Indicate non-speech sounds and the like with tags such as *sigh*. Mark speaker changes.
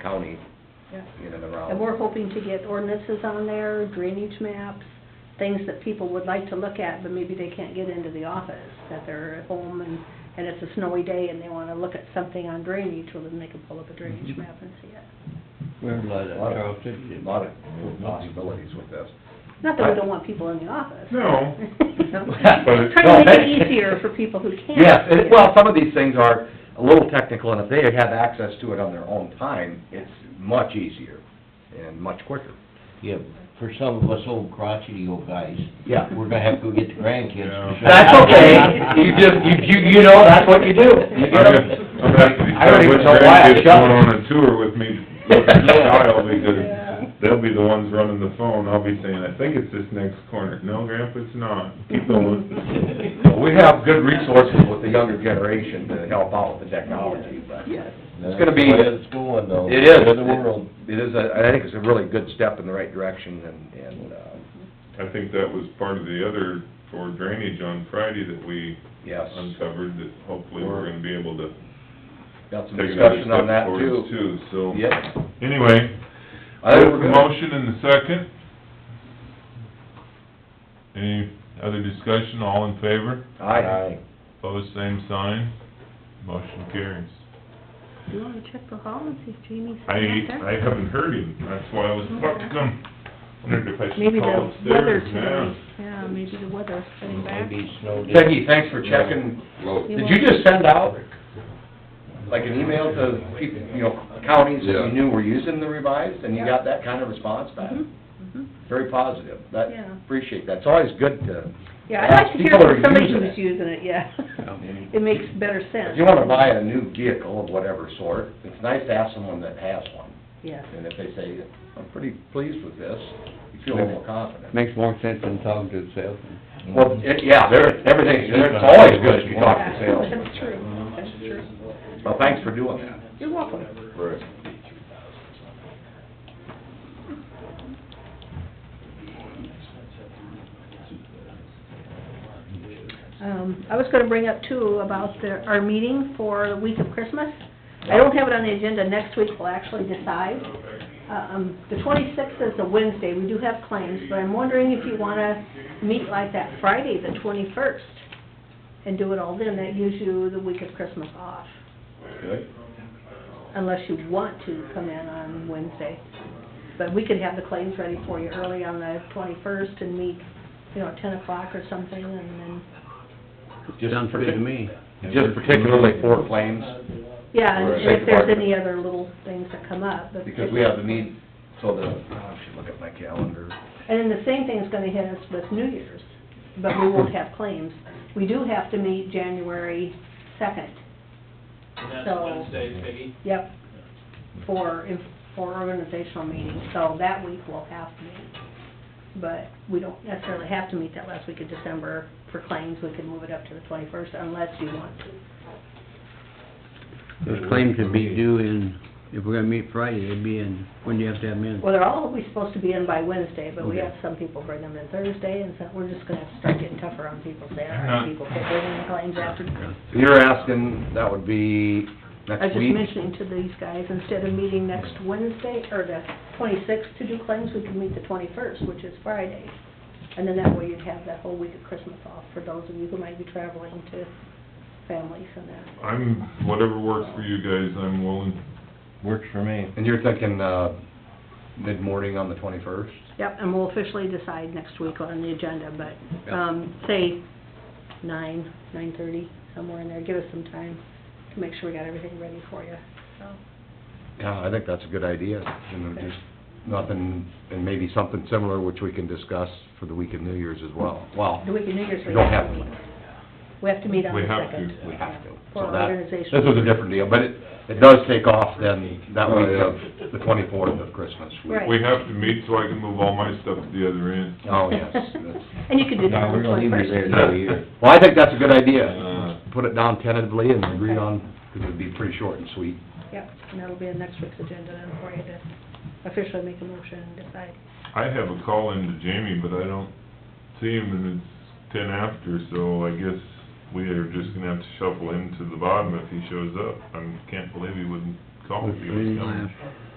Speaker 1: county
Speaker 2: Yeah.
Speaker 1: in and around.
Speaker 2: And we're hoping to get ordinances on there, drainage maps, things that people would like to look at, but maybe they can't get into the office, that they're at home and, and it's a snowy day and they wanna look at something on drainage, well, then they can pull up a drainage
Speaker 3: Mhm.
Speaker 2: map and see it.
Speaker 3: We're like
Speaker 1: A
Speaker 3: that,
Speaker 1: lot
Speaker 3: Charles
Speaker 1: of,
Speaker 3: City.
Speaker 1: a lot of possibilities with this.
Speaker 2: Not that we don't want people in the office. *laughs*
Speaker 4: No.
Speaker 2: Trying to make it easier for people who can't.
Speaker 1: Yes, it- well, some of these things are a little technical, and if they have access to it on their own time, it's much easier and much quicker.
Speaker 3: Yeah, for some of us old crotchety old guys.
Speaker 1: Yeah.
Speaker 3: We're gonna have to go get the grandkids.
Speaker 4: Yeah. That's *laughs*
Speaker 1: you know, that's what you do.
Speaker 4: I'm gonna
Speaker 1: I don't
Speaker 4: have to
Speaker 1: even know
Speaker 4: decide
Speaker 1: why I
Speaker 4: which grandkids
Speaker 1: shut
Speaker 4: going
Speaker 1: it.
Speaker 4: on a tour with
Speaker 1: *laughs*
Speaker 4: me, with the child, because
Speaker 2: Yeah.
Speaker 4: they'll be the ones running the phone, I'll be saying, I think it's this next corner, no, Grandpa, it's
Speaker 1: *laughs*
Speaker 4: not, keep going.
Speaker 1: Well, We have good resources with the younger generation to help out with the technology, but
Speaker 2: Yes.
Speaker 1: it's gonna be,
Speaker 3: That's the way it's going though.
Speaker 1: it is,
Speaker 3: The world.
Speaker 1: it is, a- I think it's a really good step in the right direction, and, and, uh,
Speaker 4: I think that was part of the other for drainage on Friday that we
Speaker 1: yes,
Speaker 4: uncovered, that hopefully we're gonna be able to
Speaker 1: got some
Speaker 4: take another
Speaker 1: discussion on that
Speaker 4: step
Speaker 1: too.
Speaker 4: towards too, so.
Speaker 1: Yep.
Speaker 4: Anyway,
Speaker 1: I
Speaker 4: there's
Speaker 1: think
Speaker 4: the
Speaker 1: we're gonna-
Speaker 4: motion and the second. Any other discussion, all in favor?
Speaker 1: Aye.
Speaker 4: Pose same sign, motion carries.
Speaker 2: Do you wanna check the hall and see if Jamie's
Speaker 4: I,
Speaker 2: sitting out
Speaker 4: I
Speaker 2: there?
Speaker 4: haven't heard him, that's why I was about to come, wondered if I should
Speaker 2: Mm-hmm. Maybe
Speaker 4: call
Speaker 2: the weather
Speaker 4: upstairs
Speaker 2: today,
Speaker 4: now.
Speaker 2: yeah, maybe the weather's coming back.
Speaker 3: Maybe snow days.
Speaker 1: Peggy, thanks for checking. Did you just send out, like, an email to people, you know, counties that you
Speaker 5: Yeah.
Speaker 1: knew were using the revised, and you
Speaker 2: Yeah.
Speaker 1: got that kind of response back?
Speaker 2: Mhm, mhm.
Speaker 1: Very positive. That,
Speaker 2: Yeah.
Speaker 1: appreciate that. It's always good to,
Speaker 2: Yeah, I'd like to hear
Speaker 1: People are
Speaker 2: from somebody
Speaker 1: using
Speaker 2: who's
Speaker 1: it.
Speaker 2: using it, yeah. It makes better sense.
Speaker 1: if you wanna buy a new vehicle of whatever sort, it's nice to have someone that has one.
Speaker 2: Yes.
Speaker 1: And if they say, I'm pretty pleased with this, you feel a little more confident. Mm-hmm.
Speaker 5: Makes more sense than talking to itself.
Speaker 1: Well, it- yeah, there, everything, it's always good if you talk to salesmen.
Speaker 2: That's true, that's true.
Speaker 1: *laughs* Well, thanks for doing that.
Speaker 2: You're welcome.
Speaker 1: Right.
Speaker 2: Um, I was gonna bring up too about the, our meeting for the week of Christmas. I don't have it on the agenda, next week we'll actually decide. Um, the twenty-sixth is a Wednesday, we do have claims, but I'm wondering if you wanna meet like that Friday, the twenty-first, and do it all then, that gives you the week of Christmas off, unless you want to come in on Wednesday. But we could have the claims ready for you early on the twenty-first and meet, you know, at ten o'clock or something, and then
Speaker 5: Sounds good to me.
Speaker 1: Just particularly for claims,
Speaker 2: Yeah, and
Speaker 1: Or
Speaker 2: and
Speaker 1: shake
Speaker 2: if
Speaker 1: the
Speaker 2: there's
Speaker 1: market.
Speaker 2: any other little things that come up, but.
Speaker 1: because we have the need, so the, Oh, I should look at my calendar.
Speaker 2: And then the same thing's gonna hit us with New Year's, but we won't have claims. We do have to meet January second,
Speaker 6: And that's
Speaker 2: So-
Speaker 6: Wednesday, Peggy?
Speaker 2: yep, for, if- for organizational meetings, so that week we'll have to meet. But we don't necessarily have to meet that last week of December for claims, we could move it up to the twenty-first unless you want to.
Speaker 5: Those claims would be due in, if we're gonna meet Friday, it'd be in, when do you have to have them in?
Speaker 2: Well, they're all always supposed to be in by Wednesday, but we
Speaker 5: Okay.
Speaker 2: have some people bring them in Thursday, and so we're just gonna have to start getting tougher on people, saying, all right, people quit bringing in claims after.
Speaker 1: So You're asking, that would be
Speaker 2: I was
Speaker 1: next
Speaker 2: just
Speaker 1: week?
Speaker 2: mentioning to these guys, instead of meeting next Wednesday, or the twenty-sixth to do claims, we can meet the twenty-first, which is Friday. And then that way you'd have that whole week of Christmas off for those of you who might be traveling to families and that.
Speaker 4: I'm, whatever works for you guys, I'm willing.
Speaker 3: Works for me.
Speaker 1: And you're thinking, uh, mid-morning on the twenty-first?
Speaker 2: Yep, and we'll officially decide next week on the agenda, but, um, say nine, nine-thirty, somewhere in there, give us some time to make sure we got everything ready for you, so.
Speaker 1: Yeah, I think that's a good idea, you know, just nothing, and maybe something similar which we can discuss for the week of New Year's as well. Well,
Speaker 2: The week of New Year's,
Speaker 1: We
Speaker 2: we
Speaker 1: don't
Speaker 2: have
Speaker 1: have
Speaker 2: to
Speaker 1: one.
Speaker 2: meet. We have to meet on
Speaker 4: We
Speaker 2: the
Speaker 4: have to.
Speaker 2: second.
Speaker 1: we have to.
Speaker 2: For
Speaker 1: So that-
Speaker 2: organizational.
Speaker 1: This was a different deal, but it, it does take off then, that week of the twenty-fourth of Christmas. week.
Speaker 2: Right.
Speaker 4: We have to meet so I can move all my stuff to the other end.
Speaker 1: Oh,
Speaker 2: *laughs*
Speaker 1: yes, that's,
Speaker 2: And you could do that
Speaker 3: No,
Speaker 2: on
Speaker 3: we're
Speaker 2: the
Speaker 3: gonna leave it there
Speaker 2: twenty-first.
Speaker 3: another year.
Speaker 1: well, I think that's a good idea.
Speaker 4: Uh,
Speaker 1: Put it down tentatively and agree on, because it'd be pretty short and sweet.
Speaker 2: Yep, and that'll be in next week's agenda then for you to officially make a motion and decide.
Speaker 4: I have a call in to Jamie, but I don't see him, and it's ten after, so I guess we are just gonna have to shuffle him to the bottom if he shows up. I can't believe he wouldn't call if
Speaker 5: Which
Speaker 4: he was
Speaker 5: means
Speaker 4: coming.
Speaker 5: last.